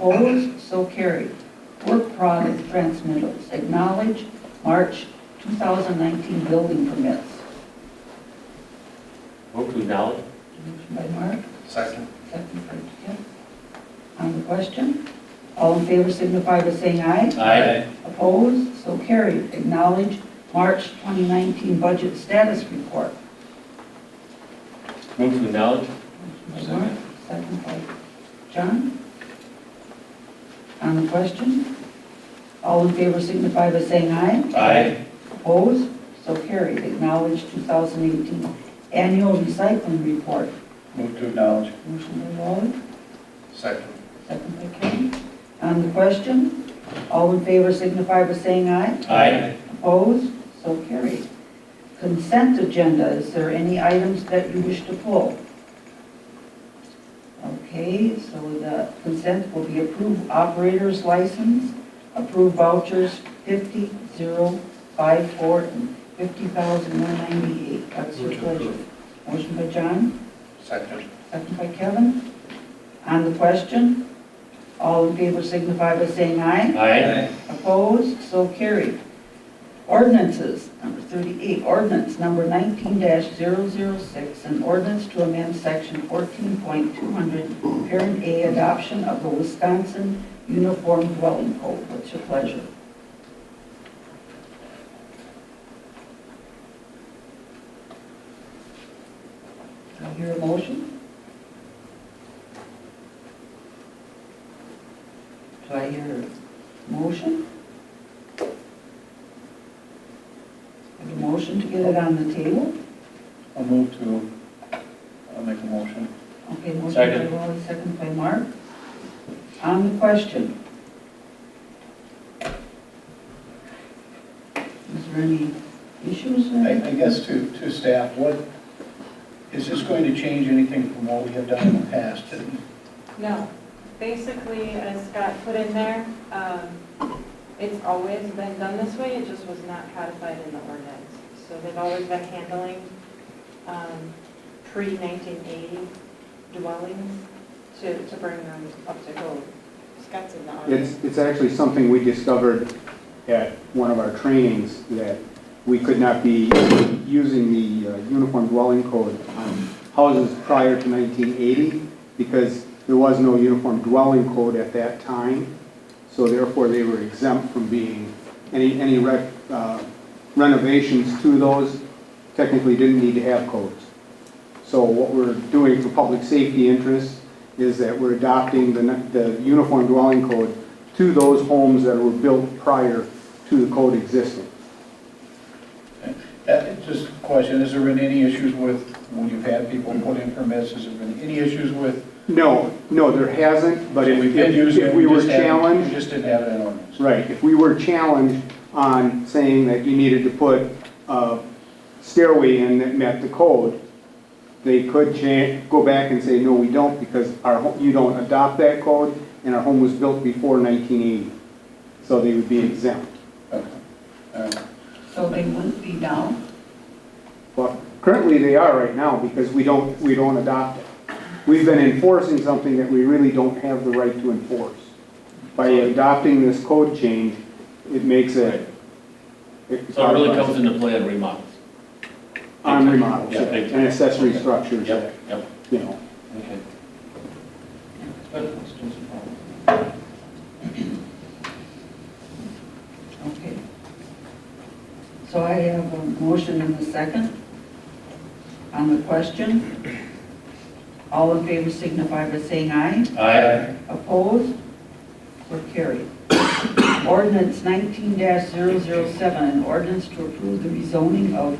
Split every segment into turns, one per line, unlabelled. Opposed, so carried. Work product transmittals, acknowledge March 2019 building permits.
Move to acknowledge.
Motion by Mark,
Second.
second by Kim. On the question, all in favor signify by saying aye. Opposed, so carried. Acknowledge March 2019 budget status report.
Move to acknowledge.
By Mark, Second by John. On the question, all in favor signify by saying aye.
Aye.
Opposed? So carried. Acknowledge 2018 Annual Recycling Report.
Move to acknowledge.
Motion by Waller,
Second.
second by Kane. On the question, all in favor signify by saying aye. Opposed? So carried. Consent agenda, is there any items that you wish to pull? Okay, so the consent will be approve operator's license, approve vouchers 50054 and 50,198. That's your pleasure. Motion by John,
Second.
second by Kevin. On the question, all in favor signify by saying aye.
Aye.
Opposed? So carried. Ordinances, number 38, ordinance number 19-006, an ordinance to amend section 14.200, parent A, adoption of the Wisconsin Uniform Dwelling Code. What's your pleasure? I hear a motion. Do I hear a motion? Have a motion to get it on the table?
I'll move to, I'll make a motion.
Okay, motion
Second.
by Wally, second by Mark. On the question. Is there any issues
I,
there?
I guess to, to staff, what, is this going to change anything from what we have done in the past?
No, basically, as Scott put in there, um, it's always been done this way, it just was not codified in the ordinance. So they've always been handling um, pre-1980 dwellings to to bring them up to code. Scott's in the ordinance.
It's, it's actually something we discovered at one of our trainings, that we could not be using the uh, Uniform Dwelling Code on houses prior to 1980, because there was no Uniform Dwelling Code at that time, so therefore they were exempt from being, any, any rec- uh, renovations to those technically didn't need to have codes. So what we're doing for public safety interests is that we're adopting the, the uniform dwelling code to those homes that were built prior to the code existing.
Uh, Just a question, has there been any issues with, when you've had people put in permits, has there been any issues with?
No, no, there hasn't, but if,
We've been
if
using it,
if we were
just haven't- We
challenged,
just didn't have it in ordinance.
right, if we were challenged on saying that you needed to put a stairway in that met the code, they could cha, go back and say, no, we don't, because our, ho- you don't adopt that code, and our home was built before 1980. So they would be exempt.
Okay. All right.
So they wouldn't be down?
Well, currently they are right now because we don't, we don't adopt it. We've been enforcing something that we really don't have the right to enforce. By adopting this code change, it makes it.
So it really comes into play on remodels.
On remodels,
Yeah,
yeah,
big time.
and accessory
Okay.
structures,
Yep, yep.
you know.
Okay.
Okay. So I have a motion and a second. On the question, all in favor signify by saying aye.
Aye.
Opposed? Or carried? Ordinance 19-007, an ordinance to approve the rezoning of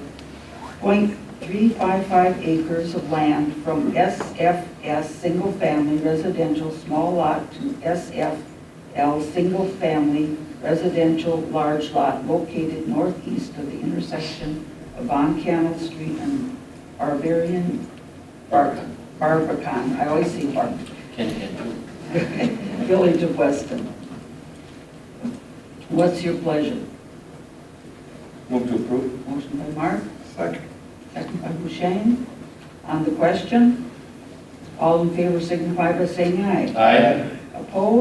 .355 acres of land from SFS Single Family Residential Small Lot to SFL Single Family Residential Large Lot located northeast of the intersection of Von Cannell Street and Barbarian, Bar- Barbican, I always say Barbican,
Can, can.
Village of Weston. What's your pleasure?
Move to approve.
Motion by Mark,
Second.
second by Hushain. On the question, all in favor signify by saying aye.
Aye.
Opposed?